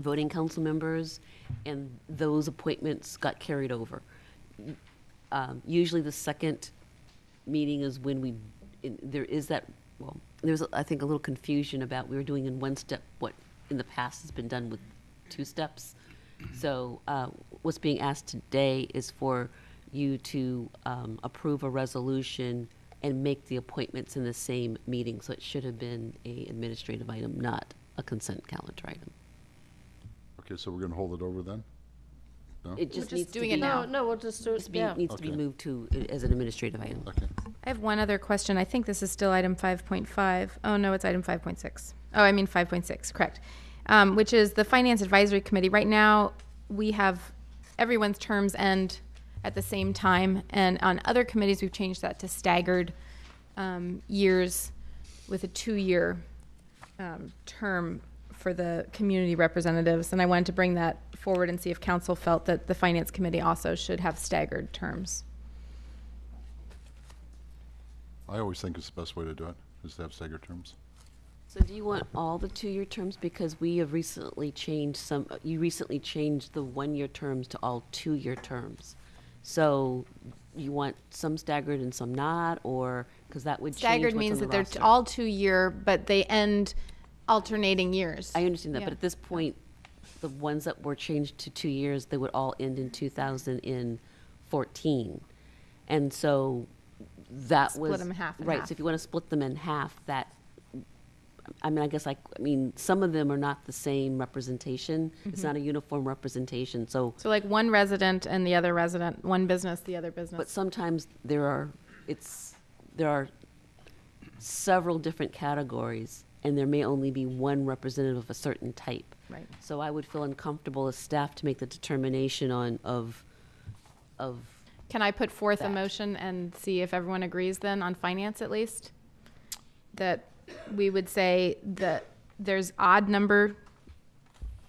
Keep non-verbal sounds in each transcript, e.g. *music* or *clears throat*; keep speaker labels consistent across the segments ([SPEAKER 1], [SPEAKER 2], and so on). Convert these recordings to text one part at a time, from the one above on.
[SPEAKER 1] voting council members, and those appointments got carried over. Um, Usually the second meeting is when we, in- there is that, well, there's, I think, a little confusion about, we were doing in one step what in the past has been done with two steps. So uh, what's being asked today is for you to um, approve a resolution and make the appointments in the same meeting. So it should have been a administrative item, not a consent calendar item.
[SPEAKER 2] Okay, so we're going to hold it over then? No?
[SPEAKER 1] It just
[SPEAKER 3] just
[SPEAKER 1] needs to
[SPEAKER 3] doing
[SPEAKER 1] be.
[SPEAKER 3] it now.
[SPEAKER 4] No, no, we'll just do
[SPEAKER 1] It's
[SPEAKER 4] it,
[SPEAKER 1] being,
[SPEAKER 4] yeah.
[SPEAKER 1] needs to be
[SPEAKER 2] Okay.
[SPEAKER 1] moved to, uh, as an administrative item.
[SPEAKER 2] Okay.
[SPEAKER 3] I have one other question. I think this is still item 5.5. Oh, no, it's item 5.6. Oh, I mean 5.6, correct. Um, which is the Finance Advisory Committee. Right now, we have everyone's terms end at the same time. And on other committees, we've changed that to staggered um, years with a two year um, term for the community representatives. And I wanted to bring that forward and see if council felt that the Finance Committee also should have staggered terms.
[SPEAKER 2] I always think it's the best way to do it, is to have staggered terms.
[SPEAKER 1] So do you want all the two-year terms? Because we have recently changed some, uh, you recently changed the one-year terms to all two-year terms. So you want some staggered and some not, or, because that would change what's
[SPEAKER 3] Staggered
[SPEAKER 1] on
[SPEAKER 3] means
[SPEAKER 1] the
[SPEAKER 3] that they're
[SPEAKER 1] roster.
[SPEAKER 3] all two year, but they end alternating years.
[SPEAKER 1] I understand that,
[SPEAKER 3] Yeah.
[SPEAKER 1] but at this point, the ones that were changed to two years, they would all end in 2014. And so that
[SPEAKER 3] Split
[SPEAKER 1] was.
[SPEAKER 3] 'em half and
[SPEAKER 1] Right,
[SPEAKER 3] half.
[SPEAKER 1] so if you want to split them in half, that, I mean, I guess I, I mean, some of them are not the same representation. It's
[SPEAKER 3] Mm-hmm.
[SPEAKER 1] not a uniform representation, so,
[SPEAKER 3] So like one resident and the other resident, one business, the other
[SPEAKER 1] but
[SPEAKER 3] business.
[SPEAKER 1] sometimes there are, it's, there are several different categories, and there may only be one representative of a certain type.
[SPEAKER 3] Right.
[SPEAKER 1] So I would feel uncomfortable as staff to make the determination on, of, of,
[SPEAKER 3] Can I put forth a
[SPEAKER 1] That.
[SPEAKER 3] motion and see if everyone agrees then on finance at least? That we would say that there's odd number.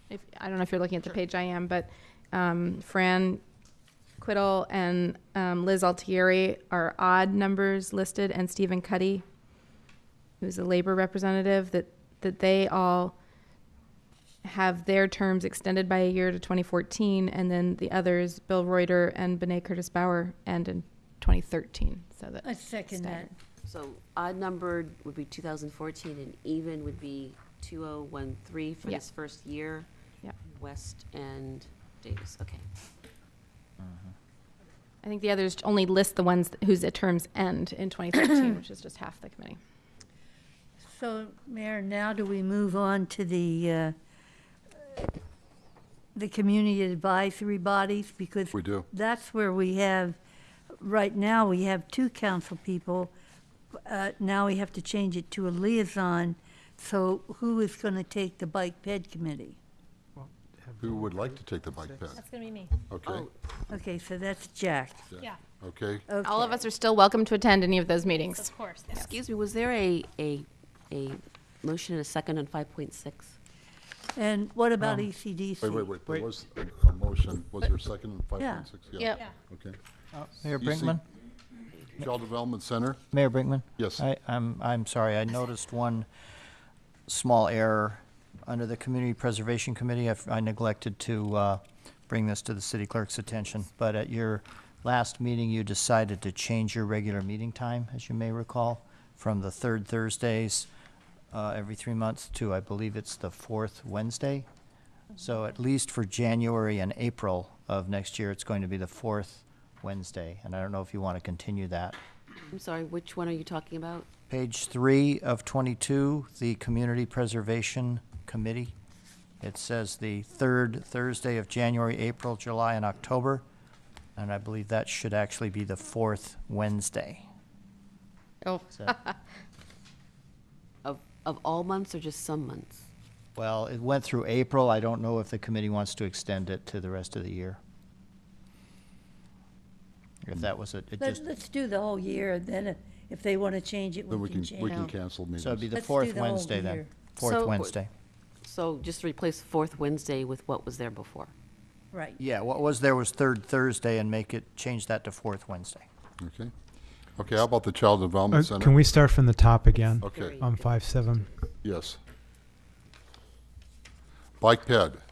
[SPEAKER 3] If, I don't know if you're looking at the page I am, but, um, Fran Quiddle and, um, Liz Altieri are odd numbers listed and Stephen Cuddy who's a labor representative, that, that they all have their terms extended by a year to 2014, and then the others, Bill Reuter and Benet Curtis Bauer, end in 2013. So
[SPEAKER 4] I
[SPEAKER 3] that
[SPEAKER 4] second that.
[SPEAKER 3] Staggered.
[SPEAKER 1] so odd numbered would be 2014, and even would be 2013 for
[SPEAKER 3] Yeah.
[SPEAKER 1] this first year.
[SPEAKER 3] Yeah.
[SPEAKER 1] West and Davis, okay.
[SPEAKER 3] I think the others only list the ones whose terms end in 2013, *clears throat* which is just half the committee.
[SPEAKER 4] So, Mayor, now do we move on to the, uh, the community advisory bodies? Because
[SPEAKER 2] We do.
[SPEAKER 4] that's where we have, right now, we have two council people. Uh, Now we have to change it to a liaison. So who is going to take the bike ped committee?
[SPEAKER 2] Who would like to take the bike path?
[SPEAKER 5] That's gonna be me.
[SPEAKER 2] Okay,
[SPEAKER 4] Okay, so that's Jack.
[SPEAKER 5] Yeah,
[SPEAKER 2] okay.
[SPEAKER 3] All of
[SPEAKER 4] Okay.
[SPEAKER 3] us are still welcome to attend any of those meetings.
[SPEAKER 5] of course.
[SPEAKER 1] Excuse me, was there a, a, a motion and a second on 5.6?
[SPEAKER 4] And what about E ECDC?
[SPEAKER 2] Um, Wait, wait, wait, there
[SPEAKER 6] Wait.
[SPEAKER 2] was a- a motion, was there a second in
[SPEAKER 4] Yeah.
[SPEAKER 2] 5.6?
[SPEAKER 4] Yep.
[SPEAKER 5] Yeah.
[SPEAKER 2] Okay.
[SPEAKER 6] Mayor
[SPEAKER 2] You see-
[SPEAKER 6] Brinkman?
[SPEAKER 2] Child Development Center,
[SPEAKER 6] Mayor Brinkman?
[SPEAKER 2] Yes.
[SPEAKER 6] I, I'm, I'm sorry, I noticed one small error under the Community Preservation Committee. I f- I neglected to, uh, bring this to the city clerk's attention, but at your last meeting, you decided to change your regular meeting time, as you may recall, from the third Thursdays, uh, every three months to, I believe it's the fourth Wednesday. So at least for January and April of next year, it's going to be the fourth Wednesday, and I don't know if you want to continue that.
[SPEAKER 1] I'm sorry, which one are you talking about?
[SPEAKER 6] Page three of twenty-two, the Community Preservation Committee. It says the third Thursday of January, April, July, and October, and I believe that should actually be the fourth Wednesday.
[SPEAKER 3] Oh,
[SPEAKER 6] So-
[SPEAKER 1] Of, of all months or just some months?
[SPEAKER 6] Well, it went through April. I don't know if the committee wants to extend it to the rest of the year. If that was it, it
[SPEAKER 4] Let's,
[SPEAKER 6] just,
[SPEAKER 4] let's do the whole year, then if they want to change it,
[SPEAKER 2] then
[SPEAKER 4] we can change.
[SPEAKER 2] we
[SPEAKER 4] it.
[SPEAKER 2] can cancel meetings.
[SPEAKER 6] so it'd be the
[SPEAKER 4] Let's do
[SPEAKER 6] fourth
[SPEAKER 4] the whole
[SPEAKER 6] Wednesday then.
[SPEAKER 4] year.
[SPEAKER 1] So-
[SPEAKER 6] Fourth Wednesday.
[SPEAKER 1] So just replace fourth Wednesday with what was there before.
[SPEAKER 4] Right.
[SPEAKER 6] Yeah, what was there was third Thursday and make it, change that to fourth Wednesday.
[SPEAKER 2] Okay. Okay, how about the Child
[SPEAKER 7] Uh,
[SPEAKER 2] Development Center?
[SPEAKER 7] Can we Um. start from the top again
[SPEAKER 2] Okay,
[SPEAKER 1] Three.
[SPEAKER 7] on five, seven?
[SPEAKER 2] yes. Bike ped,